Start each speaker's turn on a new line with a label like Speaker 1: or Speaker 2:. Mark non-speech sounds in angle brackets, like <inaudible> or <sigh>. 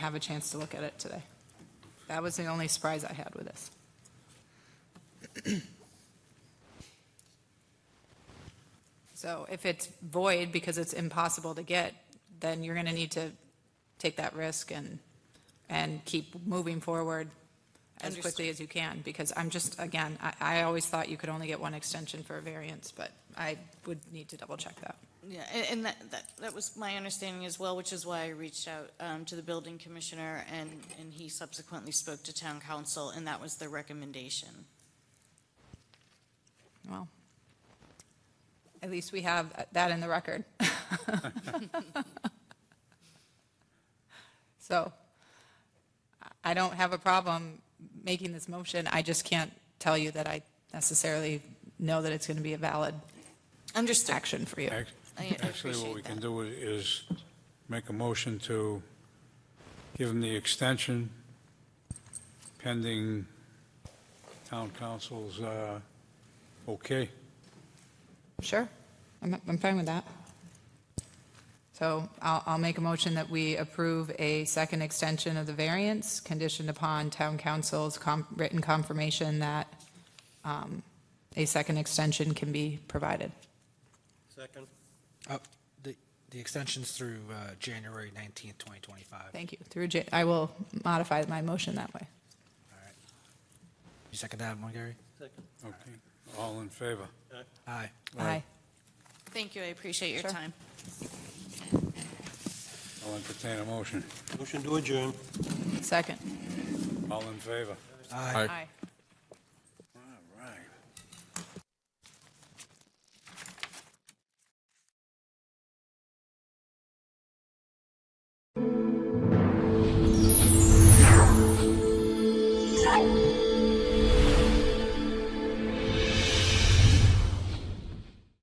Speaker 1: have a chance to look at it today. That was the only surprise I had with this. <clears throat> So if it's void because it's impossible to get, then you're going to need to take that risk and, and keep moving forward as quickly as you can, because I'm just, again, I, I always thought you could only get one extension for a variance, but I would need to double check that.
Speaker 2: Yeah, a- and that, that, that was my understanding as well, which is why I reached out um, to the building commissioner, and, and he subsequently spoke to town council, and that was the recommendation.
Speaker 1: Well, at least we have that in the record. <laughs> So I don't have a problem making this motion. I just can't tell you that I necessarily know that it's going to be a valid
Speaker 2: Understood.
Speaker 1: action for you.
Speaker 3: Ac-
Speaker 2: I
Speaker 3: Actually, what
Speaker 2: appreciate
Speaker 3: we
Speaker 2: that.
Speaker 3: can do i- is make a motion to give them the extension pending town council's, uh, okay.
Speaker 1: Sure, I'm, I'm fine with that. So I'll, I'll make a motion that we approve a second extension of the variance conditioned upon town council's com- written confirmation that um, a second extension can be provided.
Speaker 4: Second.
Speaker 5: Uh, The, the extension's through uh, January 19th, 2025.
Speaker 1: Thank you. Through, Ja- I will modify my motion that way.
Speaker 5: You second that one, Gary?
Speaker 4: Second.
Speaker 3: Okay. All in favor?
Speaker 5: Aye.
Speaker 1: Aye.
Speaker 2: Thank you, I appreciate your
Speaker 1: Sure.
Speaker 2: time.
Speaker 3: I'll entertain a motion.
Speaker 4: Motion to adjourn.
Speaker 1: Second.
Speaker 3: All in favor?
Speaker 5: Aye.
Speaker 1: Aye.